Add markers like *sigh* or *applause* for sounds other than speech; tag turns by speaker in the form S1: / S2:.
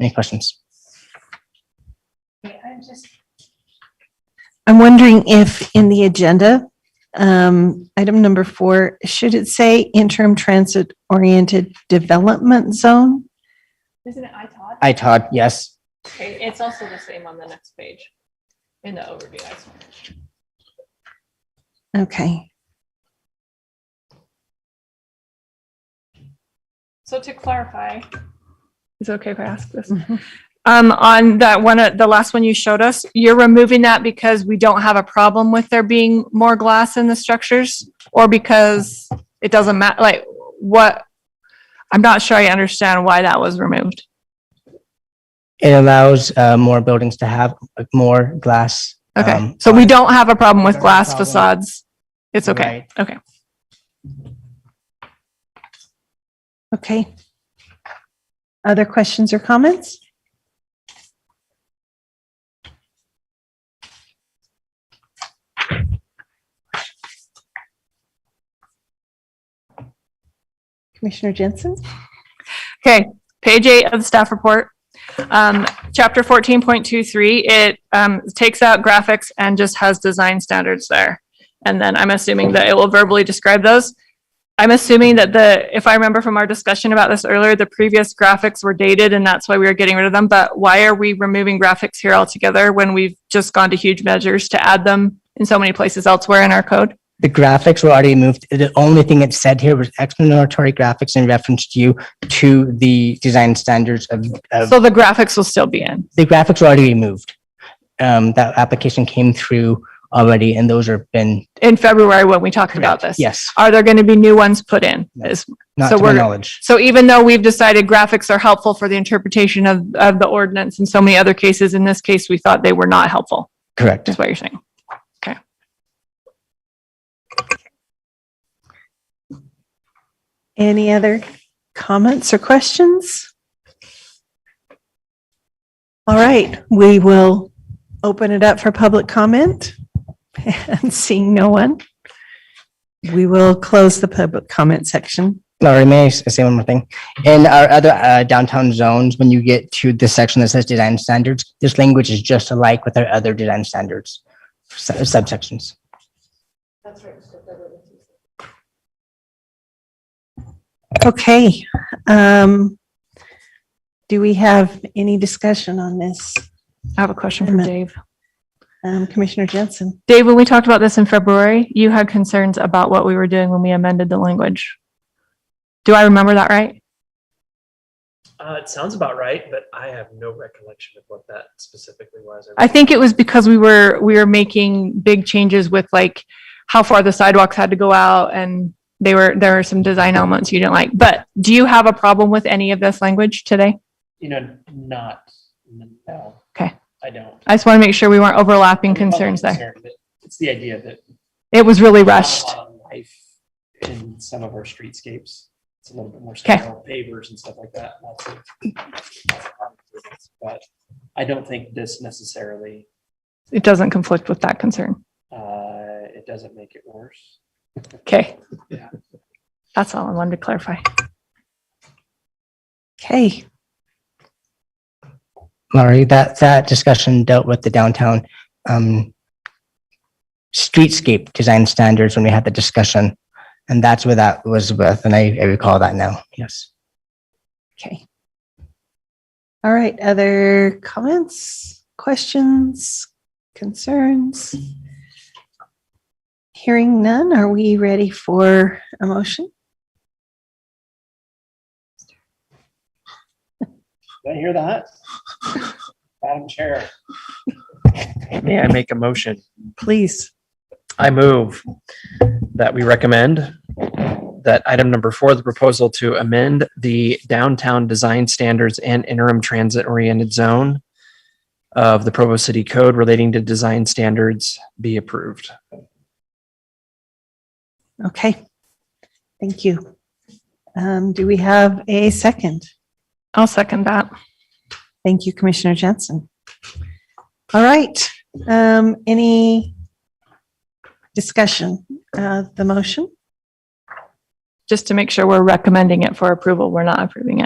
S1: Any questions?
S2: I'm wondering if in the agenda, um, item number four, should it say interim transit oriented development zone?
S3: Isn't it iTod?
S1: I, Todd, yes.
S3: Okay, it's also the same on the next page in the overview. I saw.
S2: Okay,
S3: So to clarify,
S4: Is it okay if I ask this?
S1: Mm-hmm.
S4: Um, on that one, uh, the last one you showed us, you're removing that because we don't have a problem with there being more glass in the structures? Or because it doesn't matter, like, what? I'm not sure I understand why that was removed.
S1: It allows uh, more buildings to have uh, more glass.
S4: Okay,
S1: um,
S4: so we don't have a problem with
S1: Don't have a
S4: glass
S1: problem.
S4: facades? It's okay, okay.
S2: okay. Other questions or comments? Commissioner Jensen?
S4: Okay, page eight of the staff report. Um, chapter fourteen point two three, it, um, takes out graphics and just has design standards there. And then I'm assuming that it will verbally describe those. I'm assuming that the, if I remember from our discussion about this earlier, the previous graphics were dated and that's why we were getting rid of them. But why are we removing graphics here altogether when we've just gone to huge measures to add them in so many places elsewhere in our code?
S1: The graphics were already moved. The only thing it said here was explanatory graphics in reference to you to the design standards of, of
S4: So the graphics will still be in.
S1: the graphics were already removed. Um, that application came through already and those are been.
S4: in February when we talked about this.
S1: Yes,
S4: Are there going to be new ones put in?
S1: No.
S4: Is-
S1: not
S4: So
S1: to my
S4: we're-
S1: knowledge.
S4: So even though we've decided graphics are helpful for the interpretation of, of the ordinance in so many other cases, in this case, we thought they were not helpful,
S1: Correct.
S4: is what you're saying.
S2: Any other comments or questions? All right, we will open it up for public comment. *laughs* And seeing no one, we will close the public comment section.
S1: Laurie, may I s- say one more thing? In our other uh, downtown zones, when you get to this section that says design standards, this language is just alike with our other design standards su- subsections.
S2: Okay. um, Do we have any discussion on this?
S4: I have a question for
S2: Amendment.
S4: Dave.
S2: Um, Commissioner Jensen?
S4: Dave, when we talked about this in February, you had concerns about what we were doing when we amended the language. Do I remember that right?
S5: Uh, it sounds about right, but I have no recollection of what that specifically was.
S4: I think it was because we were, we were making big changes with like how far the sidewalks had to go out and they were, there were some design elements you didn't like. But do you have a problem with any of this language today?
S5: you know, not no.
S4: Okay.
S5: I don't.
S4: I just want to make sure we weren't overlapping concerns there.
S5: It's the idea that
S4: It was really rushed.
S5: life in some of our streetscapes. It's a little bit more
S4: Okay.
S5: sterile, pavers and stuff like that. lots of- lots of art improvements, But I don't think this necessarily.
S4: It doesn't conflict with that concern.
S5: Uh, it doesn't make it worse.
S4: Okay.
S5: Yeah.
S4: That's all I wanted to clarify.
S2: Okay,
S1: Laurie, that, that discussion dealt with the downtown um, streetscape design standards when we had the discussion. And that's where that was with, and I I recall that now, yes.
S2: okay. All right, other comments, questions, concerns? Hearing none, are we ready for a motion?
S5: Did I
S4: *laughs*
S5: hear that? Madam Chair.
S6: May I make a motion?
S2: Please.
S6: I move that we recommend that item number four, the proposal to amend the downtown design standards and interim transit oriented zone of the Provo City Code relating to design standards be approved.
S2: Okay. Thank you. Um, do we have a second?
S4: I'll second that.
S2: Thank you, Commissioner Jensen. All right, um, any discussion of the motion?
S4: Just to make sure we're recommending it for approval. We're not approving it.